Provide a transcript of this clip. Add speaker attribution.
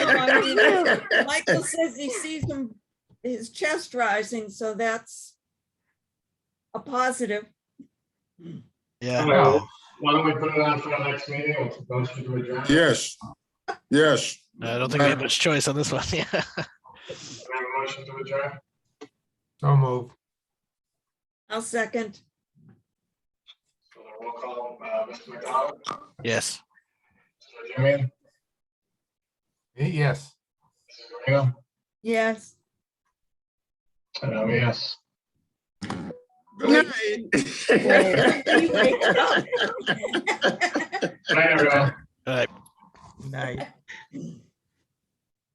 Speaker 1: he knew. Michael says he sees him, his chest rising, so that's a positive.
Speaker 2: Yeah.
Speaker 3: Well, Why don't we put it on for our next meeting? We'll propose to adjourn.
Speaker 4: Yes, yes.
Speaker 2: I don't think we have much choice on this one. Yeah.
Speaker 3: Can I have a motion to adjourn?
Speaker 5: So move.
Speaker 1: I'll second.
Speaker 3: So then we'll call, uh, Mr. McDonald,
Speaker 2: Yes.
Speaker 3: Mr. Jimmy,
Speaker 5: Yes.
Speaker 3: Mrs. Guarino,
Speaker 1: Yes.
Speaker 3: and I'm a yes.
Speaker 4: Good
Speaker 1: You
Speaker 4: night.
Speaker 1: wake up.
Speaker 3: Good night, everyone.
Speaker 2: All right.
Speaker 5: Night.
Speaker 1: Good